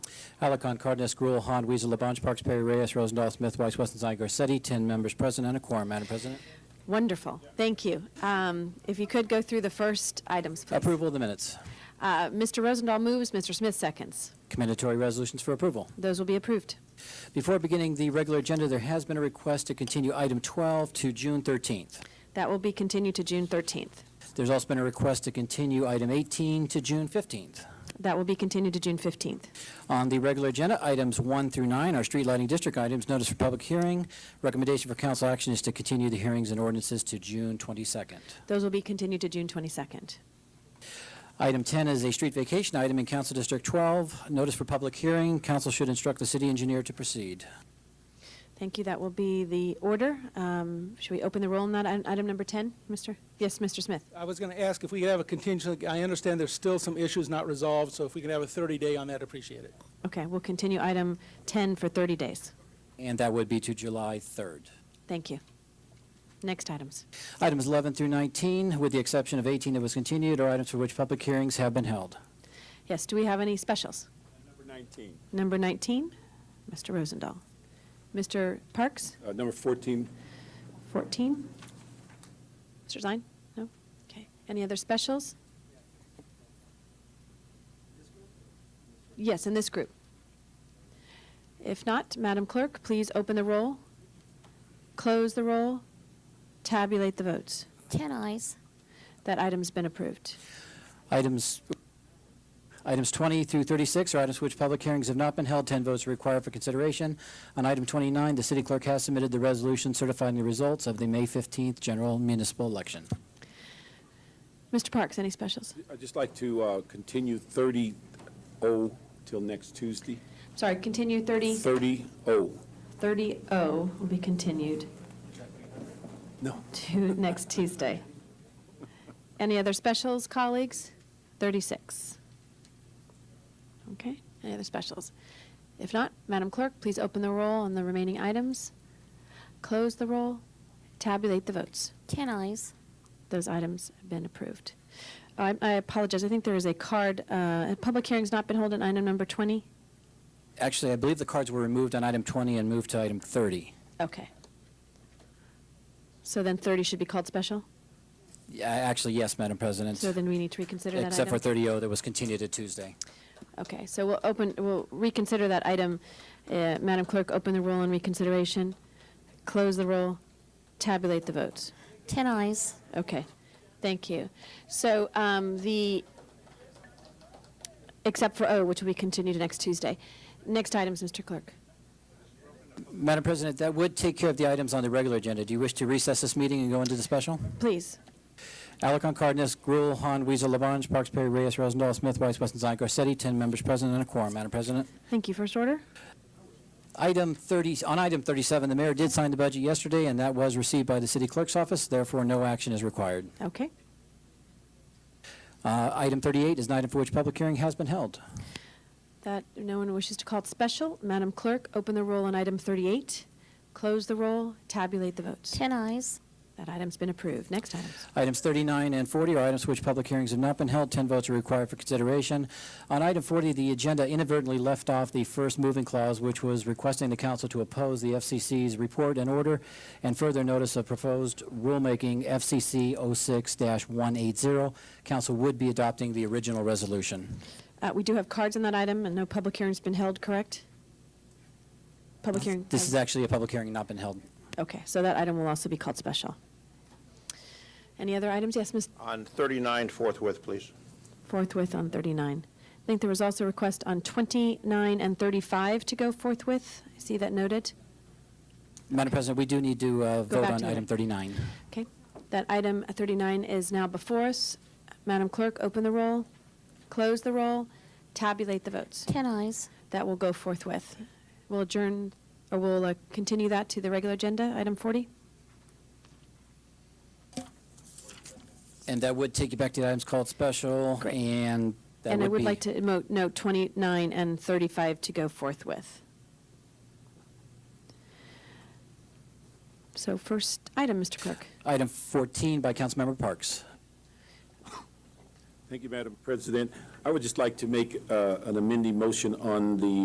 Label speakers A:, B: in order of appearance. A: Alacon, Cardenas, Gruel, Han, Weezer, Labange, Parks, Perry, Reyes, Rosendahl, Smith, Weiss, Westenzine, Garcetti, 10 members present and a quorum, Madam President.
B: Wonderful. Thank you. Um, If you could go through the first items, please.
A: Approval of the minutes.
B: Uh, Mr. Rosendahl moves, Mr. Smith seconds.
A: Commendatory resolutions for approval.
B: Those will be approved.
A: Before beginning the regular agenda, there has been a request to continue item 12 to June 13th.
B: That will be continued to June 13th.
A: There's also been a request to continue item 18 to June 15th.
B: That will be continued to June 15th.
A: On the regular agenda, items 1 through 9 are street lighting district items, notice for public hearing. Recommendation for council action is to continue the hearings and ordinances to June 22nd.
B: Those will be continued to June 22nd.
A: Item 10 is a street vacation item in Council District 12, notice for public hearing. Council should instruct the city engineer to proceed.
B: Thank you. That will be the order. Um, Should we open the roll on that, i- item number 10, Mr.? Yes, Mr. Smith.
C: I was going to ask if we could have a contingency, I understand there's still some issues not resolved, so if we can have a 30-day on that, appreciate it.
B: Okay, we'll continue item 10 for 30 days.
A: And that would be to July 3rd.
B: Thank you. Next items.
A: Items 11 through 19, with the exception of 18 that was continued, are items for which public hearings have been held.
B: Yes, do we have any specials?
D: Number 19.
B: Number 19, Mr. Rosendahl. Mr. Parks,
D: Uh, Number 14,
B: 14. Mr. Zine? No? Okay. Any other specials? Yes, in this group. If not, Madam Clerk, please open the roll, close the roll, tabulate the votes.
E: 10 eyes.
B: That item's been approved.
A: Items, items 20 through 36 are items for which public hearings have not been held. 10 votes are required for consideration. On item 29, the city clerk has submitted the resolution certifying the results of the May 15th general municipal election.
B: Mr. Parks, any specials?
D: I'd just like to uh, continue 30 O till next Tuesday. oh.
B: Sorry, continue 30,
D: 30 O.
B: 30-0 will be continued.
D: No.
B: to next Tuesday. Any other specials, colleagues? 36. Okay, any other specials? If not, Madam Clerk, please open the roll on the remaining items, close the roll, tabulate the votes.
E: 10 eyes.
B: Those items have been approved. I I apologize, I think there is a card, uh, a public hearing's not been held on item number 20?
A: Actually, I believe the cards were removed on item 20 and moved to item 30.
B: Okay. So then 30 should be called special?
A: Yeah, Actually, yes, Madam President.
B: So then we need to reconsider that item?
A: Except for 30O that was continued to Tuesday.
B: Okay, so we'll open, we'll reconsider that item. Uh, Madam Clerk, open the roll on reconsideration, close the roll, tabulate the votes.
E: 10 eyes.
B: Okay, thank you. So um, the, except for O, which will be continued to next Tuesday. Next items, Mr. Clerk.
A: Madam President, that would take care of the items on the regular agenda. Do you wish to recess this meeting and go into the special?
B: Please,
A: Alarcon, Cardenas, Gruel, Han, Weezer, Labange, Parks, Perry, Reyes, Rosendahl, Smith, Weiss, Westenzine, Garcetti, 10 members present and a quorum, Madam President.
B: thank you. First order?
A: Item 30, on item 37, the mayor did sign the budget yesterday, and that was received by the city clerk's office, therefore no action is required.
B: Okay.
A: Uh, Item 38 is an item for which public hearing has been held.
B: That, no one wishes to call it special. Madam Clerk, open the roll on item 38, close the roll, tabulate the votes.
E: 10 eyes.
B: That item's been approved. Next items.
A: Items 39 and 40 are items for which public hearings have not been held. 10 votes are required for consideration. On item 40, the agenda inadvertently left off the first moving clause, which was requesting the council to oppose the FCC's report and order and further notice of proposed rulemaking FCC 06-180. Council would be adopting the original resolution.
B: Uh, We do have cards on that item, and no public hearing's been held, correct? Public hearing?
A: This is actually a public hearing not been held.
B: Okay, so that item will also be called special. Any other items? Yes, Ms.
F: On 39 forthwith, please.
B: Forthwith on 39. I think there was also a request on 29 and 35 to go forthwith. I see that noted.
A: Madam President, we do need to uh,
B: Go
A: vote
B: back
A: on
B: to the-
A: item 39.
B: Okay, that item 39 is now before us. Madam Clerk, open the roll, close the roll, tabulate the votes.
E: 10 eyes.
B: That will go forthwith. We'll adjourn, or we'll uh, continue that to the regular agenda, item 40?
A: And that would take you back to the items called special,
B: Great.
A: and that would
B: And
A: be...
B: I would like to mo- note 29 and 35 to go forthwith. So first item, Mr. Clerk.
A: Item 14 by Councilmember Parks.
D: Thank you, Madam President. I would just like to make uh, an amending motion on the